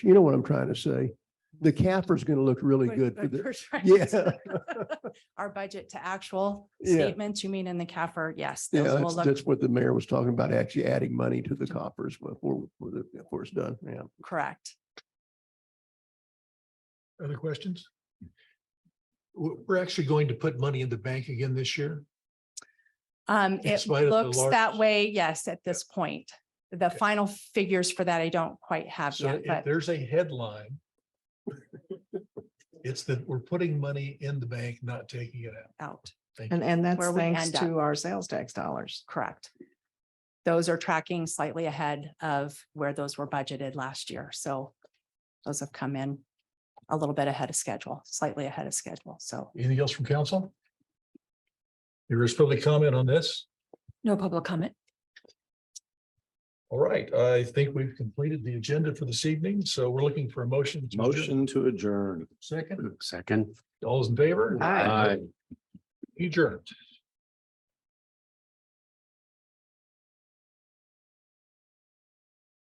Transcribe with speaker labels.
Speaker 1: you know what I'm trying to say? The capper's going to look really
Speaker 2: What
Speaker 1: good for
Speaker 2: we're
Speaker 1: the,
Speaker 2: trying to
Speaker 1: yeah,
Speaker 2: say. Our budget to actual
Speaker 1: Yeah.
Speaker 2: statements, you mean in the CAFR, yes.
Speaker 1: yeah,
Speaker 2: those will
Speaker 1: that's,
Speaker 2: look-
Speaker 1: that's what the mayor was talking about, actually adding money to the coppers before, before the- before it's done, yeah.
Speaker 2: Correct.
Speaker 3: Other questions? We're, we're actually going to put money in the bank again this year.
Speaker 2: Um, it
Speaker 3: spite of the
Speaker 2: looks that
Speaker 3: large-
Speaker 2: way, yes, at this point. The final figures for that I don't quite have
Speaker 3: So
Speaker 2: yet,
Speaker 3: if
Speaker 2: but
Speaker 3: there's a headline, it's that we're putting money in the bank, not taking it out.
Speaker 2: out,
Speaker 3: Thank
Speaker 4: And,
Speaker 3: you.
Speaker 4: and that's
Speaker 2: Where we
Speaker 4: thanks
Speaker 2: end up.
Speaker 4: to our sales tax dollars.
Speaker 2: correct. Those are tracking slightly ahead of where those were budgeted last year, so those have come in a little bit ahead of schedule, slightly ahead of schedule, so.
Speaker 3: Anything else from council? There is public comment on this?
Speaker 2: No public comment.
Speaker 3: All right, I think we've completed the agenda for this evening, so we're looking for a motion. to adjourn.
Speaker 5: Motion to adjourn.
Speaker 3: Second,
Speaker 5: Second.
Speaker 3: all those in favor?
Speaker 4: Aye.
Speaker 3: Adjourned.